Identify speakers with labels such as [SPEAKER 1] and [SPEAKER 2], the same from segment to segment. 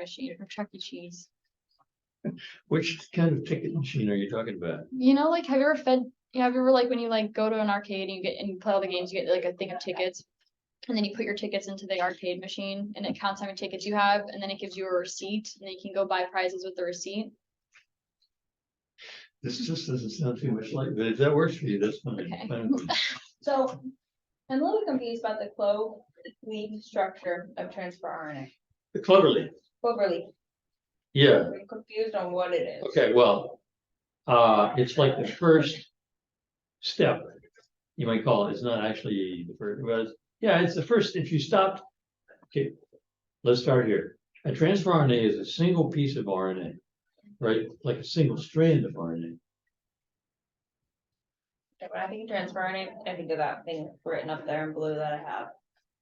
[SPEAKER 1] machine from Chuck E. Cheese.
[SPEAKER 2] Which kind of ticket machine are you talking about?
[SPEAKER 1] You know, like, have you ever fed, you know, have you ever like when you like go to an arcade and you get and you play all the games, you get like a thing of tickets. And then you put your tickets into the arcade machine and it counts how many tickets you have, and then it gives you a receipt, and then you can go buy prizes with the receipt.
[SPEAKER 2] This just doesn't sound too much like, but if that works for you, that's fine.
[SPEAKER 1] Okay.
[SPEAKER 2] fine with me.
[SPEAKER 3] So I'm a little confused about the clove leaf structure of transfer RNA.
[SPEAKER 2] Cleverly,
[SPEAKER 3] Clover leaf,
[SPEAKER 2] yeah,
[SPEAKER 3] I'm confused on what it is.
[SPEAKER 2] okay, well, uh, it's like the first step. You might call it, it's not actually the first, well, it's- yeah, it's the first, if you stopped. Okay, let's start here. A transfer RNA is a single piece of RNA, right? Like a single strand of RNA.
[SPEAKER 3] When I think of transfer RNA, I think of that thing written up there in blue that I have.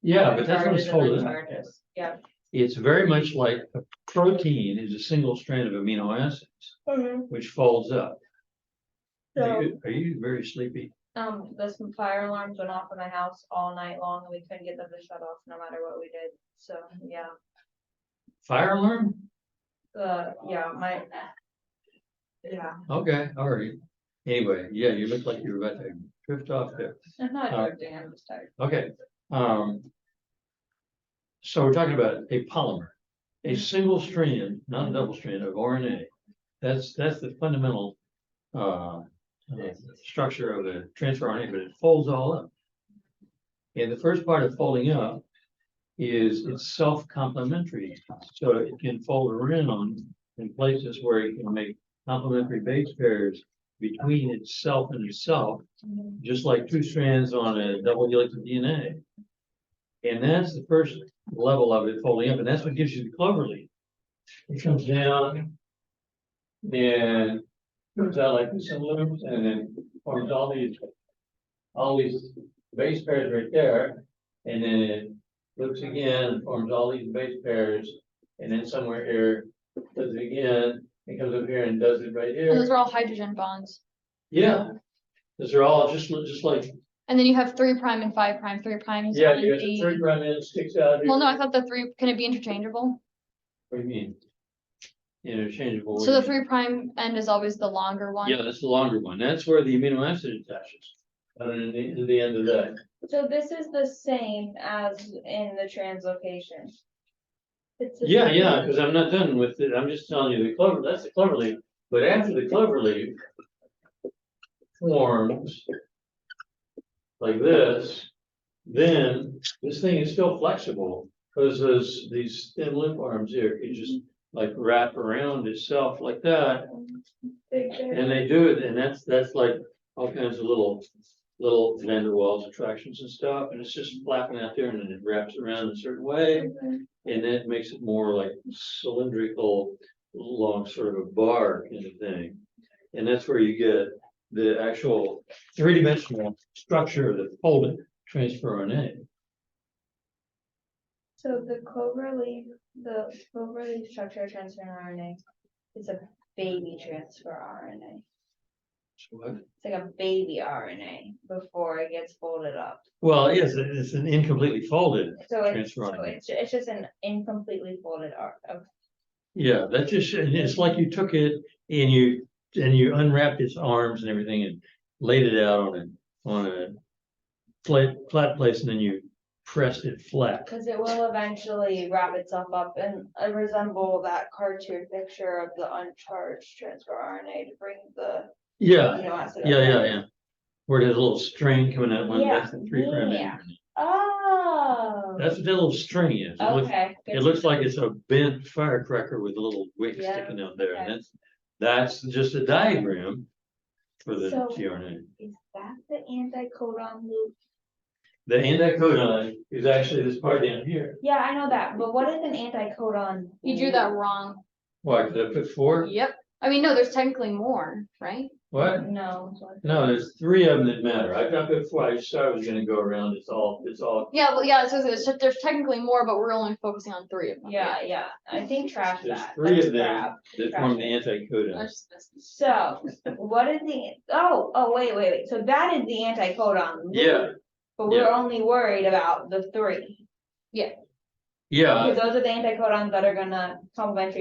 [SPEAKER 2] Yeah, but that's what it's
[SPEAKER 3] Charges and
[SPEAKER 2] called. isn't it?
[SPEAKER 3] uncharges. Yeah.
[SPEAKER 2] It's very much like a protein is a single strand of amino acids, which folds up. Are
[SPEAKER 3] So,
[SPEAKER 2] you- are you very sleepy?
[SPEAKER 3] um, this fire alarms went off in my house all night long and we couldn't get them to shut off no matter what we did. So, yeah.
[SPEAKER 2] Fire alarm?
[SPEAKER 3] Uh, yeah, my. Yeah,
[SPEAKER 2] Okay, all right. Anyway, yeah, you look like you're about to drift off there.
[SPEAKER 3] I'm not
[SPEAKER 2] Uh,
[SPEAKER 3] drifting, I'm just tired.
[SPEAKER 2] Okay, um. So we're talking about a polymer, a single strand, not a double strand of RNA. That's, that's the fundamental, uh, uh, structure of the transfer RNA, but it folds all up. And the first part of folding up is it's self-complementary, so it can fold around in places where it can make complementary base pairs between itself and itself just like two strands on a double helix of DNA. And that's the first level of it folding up, and that's what gives you the clover leaf. It comes down and comes out like this in loops and then forms all these, all these base pairs right there. And then it loops again and forms all these base pairs. And then somewhere here, does it again, it comes up here and does it right
[SPEAKER 1] And
[SPEAKER 2] here.
[SPEAKER 1] those are all hydrogen bonds.
[SPEAKER 2] Yeah, these are all just, just like
[SPEAKER 1] And then you have three prime and five prime, three prime. is
[SPEAKER 2] Yeah,
[SPEAKER 1] one,
[SPEAKER 2] you got the
[SPEAKER 1] eight.
[SPEAKER 2] third run in, sticks out. here.
[SPEAKER 1] Well, no, I thought the three, can it be interchangeable?
[SPEAKER 2] What do you mean? Interchangeable. what
[SPEAKER 1] So
[SPEAKER 2] do
[SPEAKER 1] the
[SPEAKER 2] you mean?
[SPEAKER 1] three prime end is always the longer one.
[SPEAKER 2] Yeah, that's the longer one. That's where the amino acid attaches. And then the, the end of that.
[SPEAKER 3] So this is the same as in the translocation. It's the
[SPEAKER 2] Yeah,
[SPEAKER 3] same.
[SPEAKER 2] yeah, because I'm not done with it. I'm just telling you the clover, that's the clover leaf. But after the clover leaf forms like this, then this thing is still flexible because those, these thin limb arms here can just like wrap around itself like that.
[SPEAKER 3] Big there.
[SPEAKER 2] And they do it, and that's, that's like all kinds of little, little van der Waals attractions and stuff, and it's just flapping out there and then it wraps around a certain way. And that makes it more like cylindrical, long sort of a bar kind of thing. And that's where you get the actual three-dimensional structure of the folded transfer RNA.
[SPEAKER 3] So the clover leaf, the clover leaf structure of transfer RNA is a baby transfer RNA.
[SPEAKER 2] So uh, what-
[SPEAKER 3] It's like a baby RNA before it gets folded up.
[SPEAKER 2] Well, it is, it's an incompletely folded,
[SPEAKER 3] So it's,
[SPEAKER 2] Transfer
[SPEAKER 3] so
[SPEAKER 2] RNA.
[SPEAKER 3] it's, it's just an incompletely folded R, of
[SPEAKER 2] yeah, that's just, and it's like you took it and you, and you unwrapped its arms and everything and laid it out on a, on a flat, flat place and then you pressed it flat.
[SPEAKER 3] Cause it will eventually wrap itself up and uh, resemble that cartoon picture of the uncharged transfer RNA to bring the
[SPEAKER 2] Yeah,
[SPEAKER 3] amino acid. up
[SPEAKER 2] yeah, yeah,
[SPEAKER 3] there.
[SPEAKER 2] yeah. Where it has a little string coming out one,
[SPEAKER 3] Yeah,
[SPEAKER 2] that's the three prime.
[SPEAKER 3] yeah.
[SPEAKER 2] end.
[SPEAKER 3] Oh.
[SPEAKER 2] That's what that little string is. It looks,
[SPEAKER 3] Okay. good
[SPEAKER 2] it
[SPEAKER 3] to
[SPEAKER 2] looks like it's a bent firecracker with a little wick
[SPEAKER 3] Yeah,
[SPEAKER 2] sticking out there.
[SPEAKER 3] okay.
[SPEAKER 2] And that's, that's just a diagram for the
[SPEAKER 3] So-
[SPEAKER 2] tRNA.
[SPEAKER 3] know. Is that the anticodon loop?
[SPEAKER 2] The anticodon is actually this part down here.
[SPEAKER 3] Yeah, I know that, but what is an anticodon?
[SPEAKER 1] You drew that wrong.
[SPEAKER 2] Why, did I put four?
[SPEAKER 1] Yep. I mean, no, there's technically more, right?
[SPEAKER 2] What?
[SPEAKER 3] No. sorry.
[SPEAKER 2] No, there's three of them that matter. I got put four. I just thought I was gonna go around. It's all, it's all.
[SPEAKER 1] Yeah, well, yeah, so there's, there's technically more, but we're only focusing on three of them.
[SPEAKER 3] Yeah, yeah, I think trash
[SPEAKER 2] There's
[SPEAKER 3] that.
[SPEAKER 2] three
[SPEAKER 3] that's
[SPEAKER 2] of them.
[SPEAKER 3] crap.
[SPEAKER 2] That form the
[SPEAKER 1] I
[SPEAKER 2] anticodon.
[SPEAKER 1] was just messing.
[SPEAKER 3] So, what is the, oh, oh, wait, wait, wait, so that is the anticodon loop.
[SPEAKER 2] Yeah,
[SPEAKER 3] But we're
[SPEAKER 2] Yeah.
[SPEAKER 3] only worried about the three.
[SPEAKER 1] Yeah.
[SPEAKER 2] Yeah,
[SPEAKER 3] Because those are the anticodons that are gonna complement your